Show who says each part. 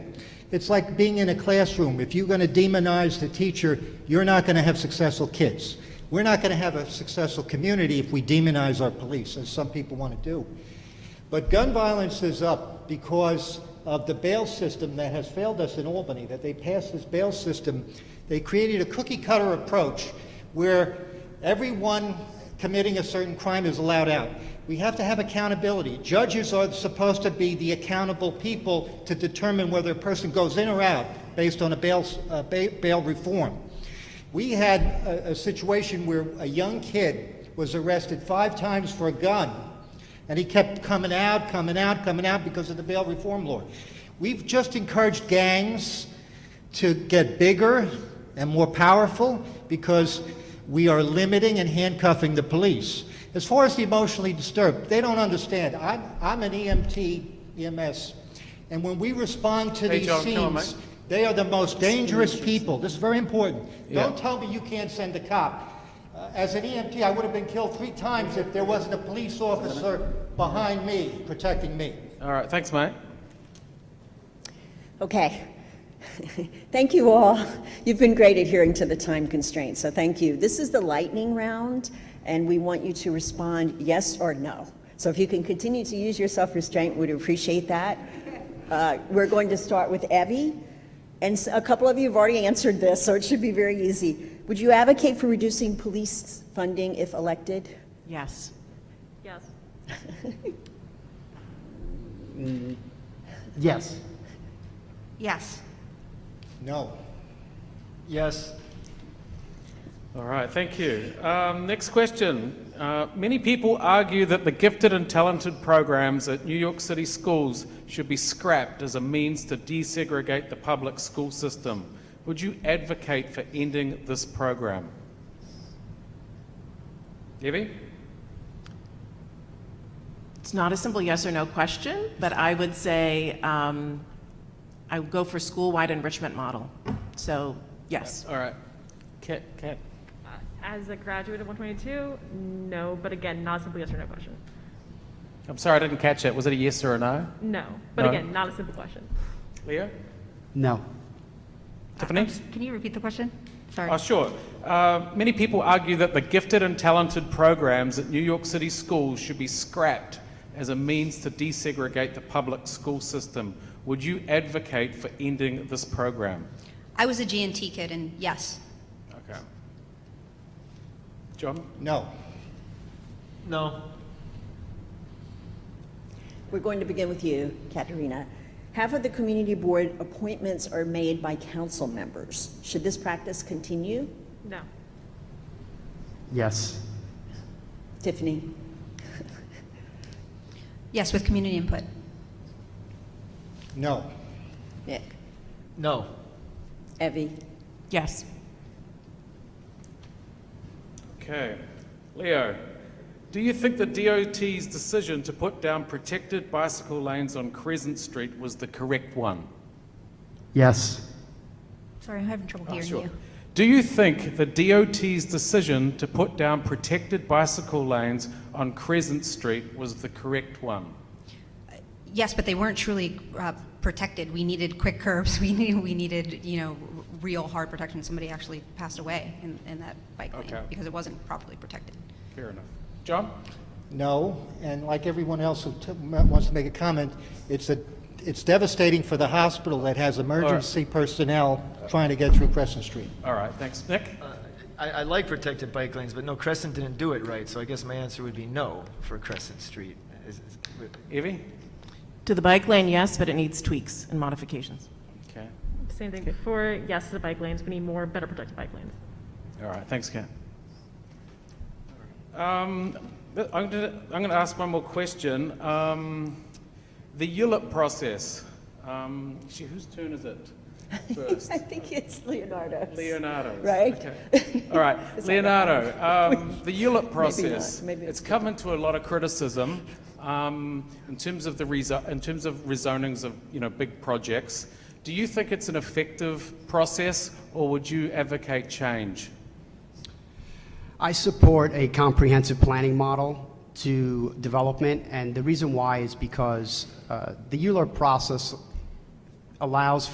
Speaker 1: It's like being in a classroom. If you're going to demonize the teacher, you're not going to have successful kids. We're not going to have a successful community if we demonize our police, as some people want to do. But gun violence is up because of the bail system that has failed us in Albany, that they passed this bail system. They created a cookie cutter approach where everyone committing a certain crime is allowed out. We have to have accountability. Judges are supposed to be the accountable people to determine whether a person goes in or out based on a bail, uh, ba- bail reform. We had a, a situation where a young kid was arrested five times for a gun, and he kept coming out, coming out, coming out because of the bail reform law. We've just encouraged gangs to get bigger and more powerful because we are limiting and handcuffing the police. As far as the emotionally disturbed, they don't understand. I'm, I'm an E EMT, EMS, and when we respond to
Speaker 2: Hey,
Speaker 1: these
Speaker 2: John, come on,
Speaker 1: scenes, they are the most dangerous people. This is very important.
Speaker 2: Yeah.
Speaker 1: Don't tell me you can't send a cop. Uh, As an EMT, I would have been killed three times if there wasn't a police officer behind me, protecting me.
Speaker 2: All right, thanks, mate.
Speaker 3: Okay. Thank you all. You've been great at hearing to the time constraints, so thank you. This is the lightning round, and we want you to respond yes or no. So if you can continue to use your self-restraint, we'd appreciate that. Uh, We're going to start with Evie, and s- a couple of you have already answered this, so it should be very easy. Would you advocate for reducing police funding if elected?
Speaker 4: Yes.
Speaker 5: Yes.
Speaker 6: Yes.
Speaker 4: Yes.
Speaker 1: No.
Speaker 6: Yes.
Speaker 2: All right, thank you. Um, next question. Uh, many people argue that the gifted and talented programs at New York City schools should be scrapped as a means to desegregate the public school system. Would you advocate for ending this program? Debbie?
Speaker 4: It's not a simple yes or no question, but I would say um, I would go for school-wide enrichment model. So, yes.
Speaker 2: All right. Cat, cat.
Speaker 5: Uh, As a graduate of 122, no, but again, not a simple yes or no question.
Speaker 2: I'm sorry, I didn't catch it. Was it a yes or a no?
Speaker 5: No, but
Speaker 2: No.
Speaker 5: again, not a simple question.
Speaker 2: Leo?
Speaker 6: No.
Speaker 2: Tiffany?
Speaker 7: Can you repeat the question? Sorry.
Speaker 2: Oh, sure. Uh, many people argue that the gifted and talented programs at New York City schools should be scrapped as a means to desegregate the public school system. Would you advocate for ending this program?
Speaker 7: I was a G&T kid, and yes.
Speaker 2: Okay. John?
Speaker 1: No.
Speaker 6: No.
Speaker 3: We're going to begin with you, Katerina. Half of the community board appointments are made by council members. Should this practice continue?
Speaker 5: No.
Speaker 6: Yes.
Speaker 3: Tiffany?
Speaker 7: Yes, with community input.
Speaker 1: No.
Speaker 3: Nick?
Speaker 6: No.
Speaker 3: Evie?
Speaker 4: Yes.
Speaker 2: Okay. Leo, do you think the DOT's decision to put down protected bicycle lanes on Crescent Street was the correct one?
Speaker 6: Yes.
Speaker 7: Sorry, I'm having trouble
Speaker 2: Oh,
Speaker 7: hearing
Speaker 2: sure.
Speaker 7: you.
Speaker 2: Do you think the DOT's decision to put down protected bicycle lanes on Crescent Street was the correct one?
Speaker 7: Yes, but they weren't truly uh, protected. We needed quick curbs. We needed, we needed, you know, r- real hard protection. Somebody actually passed away in, in that bike
Speaker 2: Okay.
Speaker 7: lane because it wasn't properly protected.
Speaker 2: Fair enough. John?
Speaker 1: No. And like everyone else who t- m- wants to make a comment, it's, a, it's devastating for the hospital that has emergency personnel trying to get through Crescent Street.
Speaker 2: All right, thanks. Nick?
Speaker 8: I, I like protected bike lanes, but no, Crescent didn't do it right, so I guess my answer would be no for Crescent Street. Is- is-
Speaker 2: Evie?
Speaker 4: To the bike lane, yes, but it needs tweaks and modifications.
Speaker 2: Okay.
Speaker 5: Same thing before, yes to the bike lanes. We need more, better protected bike lanes.
Speaker 2: All right, thanks, Ken. Um, th- I'm going to I'm gonna ask one more question. Um, the ULIP process. Um, actually, whose turn is it first?
Speaker 3: I think it's Leonardo.
Speaker 2: Leonardo.
Speaker 3: Right?
Speaker 2: Okay. All right, Leonardo. Um, the ULIP process.
Speaker 3: maybe
Speaker 2: it's come into a lot of criticism um, in terms of the rezo- in terms of rezonings of you know big projects. Do you think it's an effective process, or would you advocate change?
Speaker 9: I support a comprehensive planning model to development, and the reason why is because uh, the ULURP process allows